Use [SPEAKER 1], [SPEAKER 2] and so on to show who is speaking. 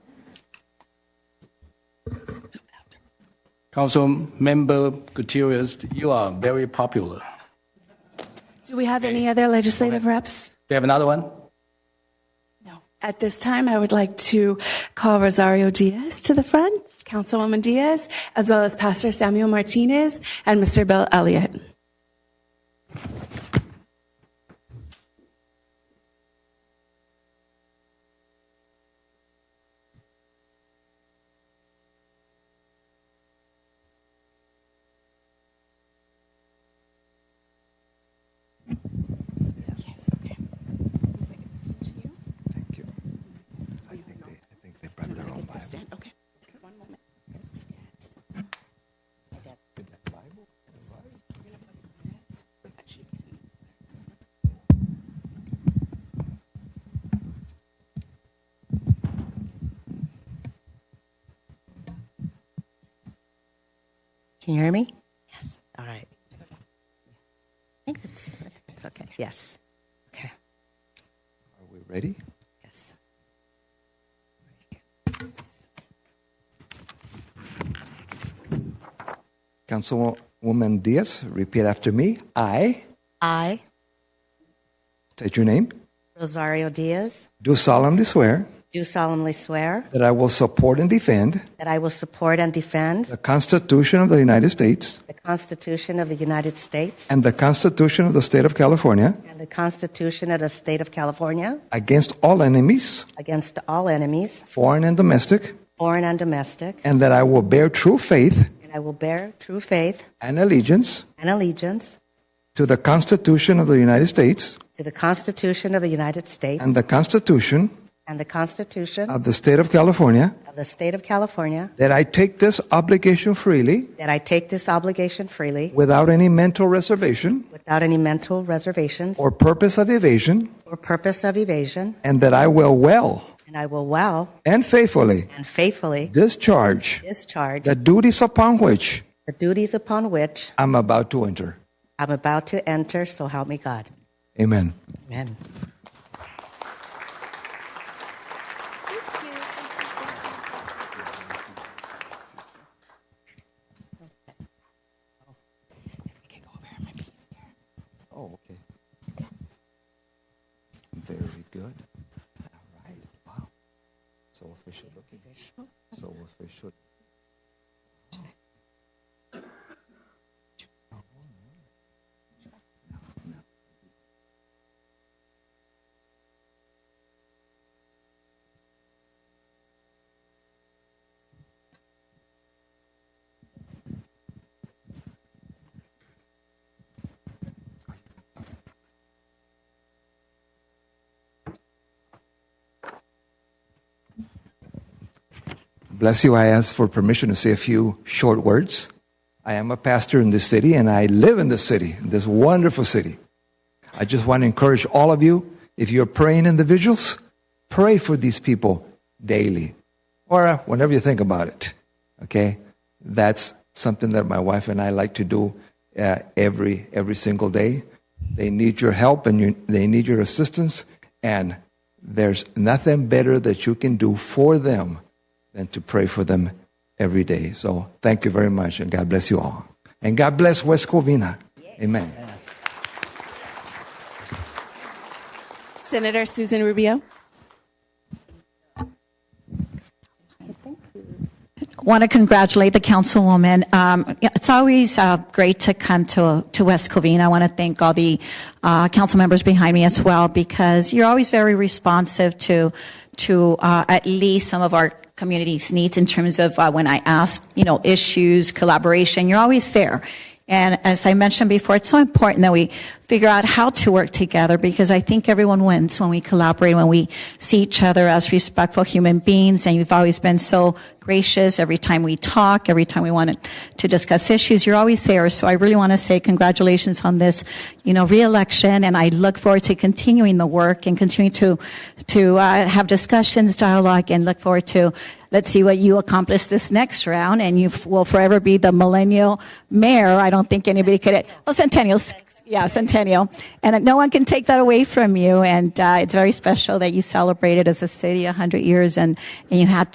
[SPEAKER 1] Council Member Gutierrez, you are very popular.
[SPEAKER 2] Do we have any other legislative reps?
[SPEAKER 1] Do you have another one?
[SPEAKER 2] At this time, I would like to call Rosario Diaz to the front, Councilwoman Diaz, as well as Pastor Samuel Martinez and Mr. Bill Elliott.
[SPEAKER 3] Thank you. I think they, I think they brought their own Bible.
[SPEAKER 2] Okay. One moment.
[SPEAKER 4] Can you hear me? Yes. All right. I think it's, I think it's okay. Yes. Okay.
[SPEAKER 3] Are we ready?
[SPEAKER 4] Yes.
[SPEAKER 3] Councilwoman Diaz, repeat after me. I,
[SPEAKER 4] I,
[SPEAKER 3] state your name,
[SPEAKER 4] Rosario Diaz,
[SPEAKER 3] do solemnly swear
[SPEAKER 4] do solemnly swear
[SPEAKER 3] that I will support and defend
[SPEAKER 4] that I will support and defend
[SPEAKER 3] the Constitution of the United States
[SPEAKER 4] the Constitution of the United States
[SPEAKER 3] and the Constitution of the State of California
[SPEAKER 4] and the Constitution of the State of California
[SPEAKER 3] against all enemies,
[SPEAKER 4] against all enemies,
[SPEAKER 3] foreign and domestic,
[SPEAKER 4] foreign and domestic,
[SPEAKER 3] and that I will bear true faith
[SPEAKER 4] and I will bear true faith
[SPEAKER 3] and allegiance
[SPEAKER 4] and allegiance
[SPEAKER 3] to the Constitution of the United States
[SPEAKER 4] to the Constitution of the United States
[SPEAKER 3] and the Constitution
[SPEAKER 4] and the Constitution
[SPEAKER 3] of the State of California,
[SPEAKER 4] of the State of California,
[SPEAKER 3] that I take this obligation freely
[SPEAKER 4] that I take this obligation freely
[SPEAKER 3] without any mental reservation
[SPEAKER 4] without any mental reservations
[SPEAKER 3] or purpose of evasion,
[SPEAKER 4] or purpose of evasion,
[SPEAKER 3] and that I will well
[SPEAKER 4] and I will well
[SPEAKER 3] and faithfully
[SPEAKER 4] and faithfully
[SPEAKER 3] discharge
[SPEAKER 4] discharge
[SPEAKER 3] the duties upon which
[SPEAKER 4] the duties upon which
[SPEAKER 3] I'm about to enter.
[SPEAKER 4] I'm about to enter, so help me God.
[SPEAKER 3] Amen.
[SPEAKER 4] Amen.
[SPEAKER 3] Oh, okay. Very good. All right. Wow. So official looking. So official. Bless you. I ask for permission to say a few short words. I am a pastor in this city and I live in this city, this wonderful city. I just want to encourage all of you if you're praying individuals, pray for these people daily or uh, whenever you think about it. Okay? That's something that my wife and I like to do uh, every, every single day. They need your help and you, they need your assistance, and there's nothing better that you can do for them than to pray for them every day. So thank you very much, and God bless you all. And God bless West Covina. Amen.
[SPEAKER 2] Senator Susan Rubio.
[SPEAKER 5] want to congratulate the councilwoman. Um, yeah, it's always uh, great to come to to West Covina. I want to thank all the uh, council members behind me as well because you're always very responsive to to uh, at least some of our community's needs in terms of uh, when I ask you know issues, collaboration. You're always there. And as I mentioned before, it's so important that we figure out how to work together because I think everyone wins when we collaborate, when we see each other as respectful human beings. And you've always been so gracious every time we talk, every time we wanted to discuss issues. You're always there. So I really want to say congratulations on this, you know, reelection. And I look forward to continuing the work and continue to, to uh, have discussions, dialogue, and look forward to let's see what you accomplish this next round. And you f- will forever be the millennial mayor. I don't think anybody could, well, centennials. Yeah, centennial. And that no one can take that away from you. And uh, it's very special that you celebrated as a city 100 years and, and you had